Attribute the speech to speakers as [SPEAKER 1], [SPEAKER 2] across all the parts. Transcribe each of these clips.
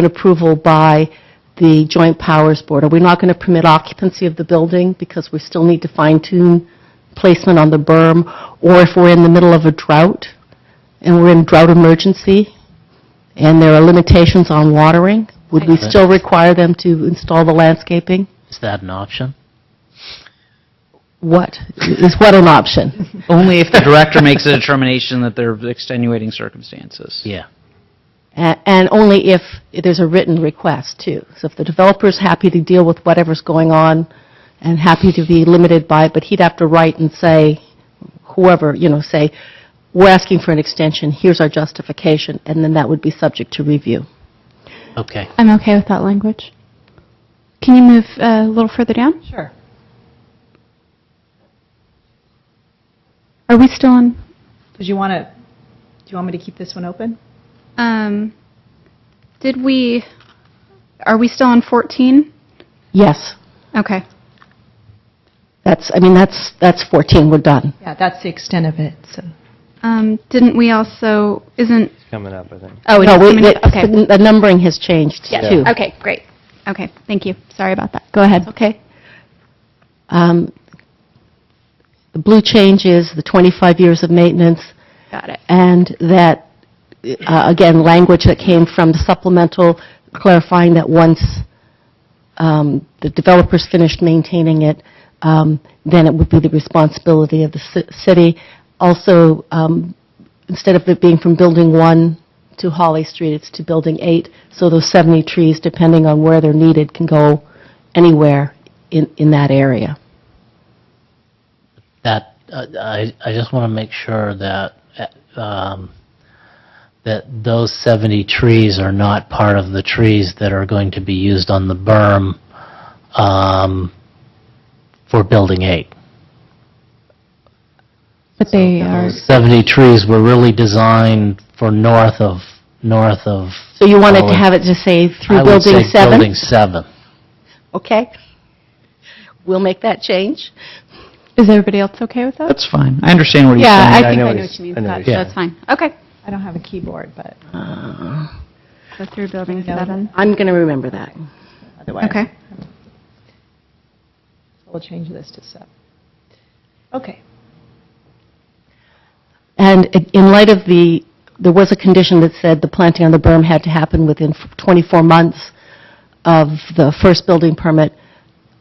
[SPEAKER 1] an approval by the Joint Powers Board. Are we not going to permit occupancy of the building because we still need to fine-tune placement on the berm? Or if we're in the middle of a drought and we're in drought emergency and there are limitations on watering, would we still require them to install the landscaping?
[SPEAKER 2] Is that an option?
[SPEAKER 1] What, is what an option?
[SPEAKER 3] Only if the director makes a determination that there are extenuating circumstances.
[SPEAKER 2] Yeah.
[SPEAKER 1] A- And only if there's a written request, too. So if the developer's happy to deal with whatever's going on and happy to be limited by it, but he'd have to write and say, whoever, you know, say, we're asking for an extension, here's our justification, and then that would be subject to review.
[SPEAKER 2] Okay.
[SPEAKER 4] I'm okay with that language. Can you move uh, a little further down?
[SPEAKER 1] Sure.
[SPEAKER 4] Are we still on?
[SPEAKER 5] Did you want to, do you want me to keep this one open?
[SPEAKER 4] Um, did we? Are we still on 14?
[SPEAKER 1] Yes,
[SPEAKER 4] Okay.
[SPEAKER 1] that's, I mean, that's, that's 14, we're done.
[SPEAKER 5] Yeah, that's the extent of it, so.
[SPEAKER 4] Um, didn't we also? Isn't?
[SPEAKER 6] coming up, I think.
[SPEAKER 4] Oh, it
[SPEAKER 1] No,
[SPEAKER 4] is
[SPEAKER 1] we-
[SPEAKER 4] coming up.
[SPEAKER 1] it's-
[SPEAKER 4] Okay.
[SPEAKER 1] The numbering has changed, too.
[SPEAKER 4] Okay. Great. Okay. Thank you. Sorry about that. Go ahead.
[SPEAKER 1] Okay. Um, The blue change is the 25 years of maintenance.
[SPEAKER 4] Got it.
[SPEAKER 1] and that, uh, again, language that came from the supplemental clarifying that once um, the developers finished maintaining it, um, then it would be the responsibility of the ci- city. Also, um, instead of it being from Building 1 to Holly Street, it's to Building 8, so those 70 trees, depending on where they're needed, can go anywhere in in that area.
[SPEAKER 2] That, uh, I, I just want to make sure that, uh, um, that those 70 trees are not part of the trees that are going to be used on the berm um, for Building 8.
[SPEAKER 7] But they are,
[SPEAKER 2] 70 trees were really designed for north of, north of...
[SPEAKER 1] So you wanted to
[SPEAKER 2] Holly.
[SPEAKER 1] have it just say
[SPEAKER 2] I
[SPEAKER 1] through
[SPEAKER 2] would
[SPEAKER 1] Building 7?
[SPEAKER 2] say Building 7.
[SPEAKER 1] Okay. We'll make that change.
[SPEAKER 7] is everybody else okay with that?
[SPEAKER 3] That's fine. I understand what he's
[SPEAKER 7] Yeah,
[SPEAKER 3] saying.
[SPEAKER 7] I
[SPEAKER 6] I
[SPEAKER 7] think
[SPEAKER 6] know
[SPEAKER 7] I
[SPEAKER 6] what
[SPEAKER 7] know what
[SPEAKER 6] he's-
[SPEAKER 7] you mean.
[SPEAKER 6] I know what
[SPEAKER 7] That's
[SPEAKER 2] he's-
[SPEAKER 7] that's fine.
[SPEAKER 4] Okay.
[SPEAKER 5] I don't have a keyboard, but
[SPEAKER 4] So through building
[SPEAKER 5] No.
[SPEAKER 4] seven.
[SPEAKER 1] Uh, I'm going to remember that.
[SPEAKER 5] otherwise.
[SPEAKER 4] Okay.
[SPEAKER 5] We'll change this to sub. Okay.
[SPEAKER 1] And in light of the, there was a condition that said the planting on the berm had to happen within 24 months of the first building permit.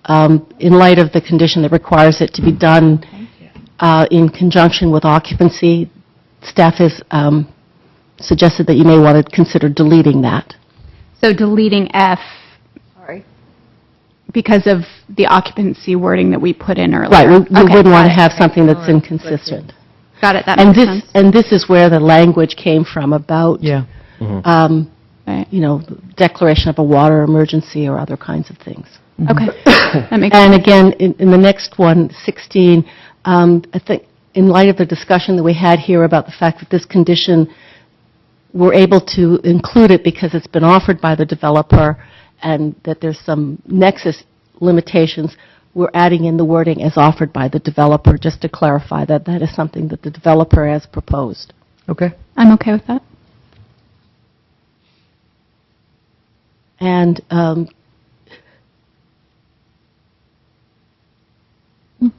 [SPEAKER 1] Um, In light of the condition that requires it to be done uh, in conjunction with occupancy, staff has um, suggested that you may want to consider deleting that.
[SPEAKER 4] So deleting F
[SPEAKER 5] Sorry.
[SPEAKER 4] because of the occupancy wording that we put in earlier.
[SPEAKER 1] Right, we we
[SPEAKER 4] Okay,
[SPEAKER 1] wouldn't
[SPEAKER 4] got
[SPEAKER 1] want to
[SPEAKER 4] it.
[SPEAKER 1] have something that's inconsistent.
[SPEAKER 4] Got it. That
[SPEAKER 1] And
[SPEAKER 4] makes
[SPEAKER 1] this,
[SPEAKER 4] sense.
[SPEAKER 1] and this is where the language came from about,
[SPEAKER 3] Yeah.
[SPEAKER 1] um,
[SPEAKER 4] Right.
[SPEAKER 1] you know, declaration of a water emergency or other kinds of things.
[SPEAKER 4] Okay. That makes
[SPEAKER 1] And again, in in the next one, 16, um, I think, in light of the discussion that we had here about the fact that this condition, we're able to include it because it's been offered by the developer, and that there's some nexus limitations, we're adding in the wording as offered by the developer, just to clarify that that is something that the developer has proposed.
[SPEAKER 3] Okay.
[SPEAKER 4] I'm okay with that.
[SPEAKER 1] And um,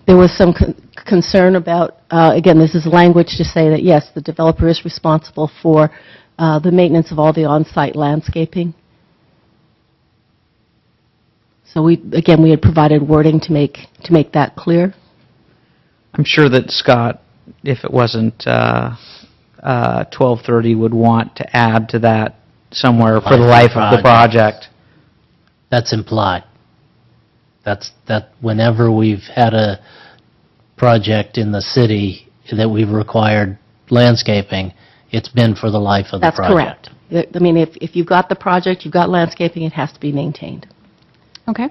[SPEAKER 1] there was some con- concern about, uh, again, this is language to say that, yes, the developer is responsible for uh, the maintenance of all the on-site landscaping. So we, again, we had provided wording to make, to make that clear.
[SPEAKER 3] I'm sure that Scott, if it wasn't uh, uh, 12:30, would want to add to that somewhere for the life of the project.
[SPEAKER 2] That's implied. That's, that whenever we've had a project in the city that we've required landscaping, it's been for the life of the
[SPEAKER 1] That's
[SPEAKER 2] project.
[SPEAKER 1] correct. I I mean, if, if you've got the project, you've got landscaping, it has to be maintained.
[SPEAKER 4] Okay.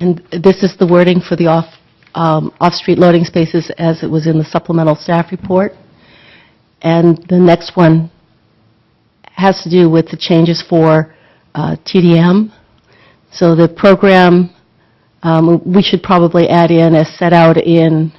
[SPEAKER 1] And this is the wording for the off, um, off-street loading spaces as it was in the supplemental staff report. And the next one has to do with the changes for uh, TDM. So the program, um, we should probably add in as set out in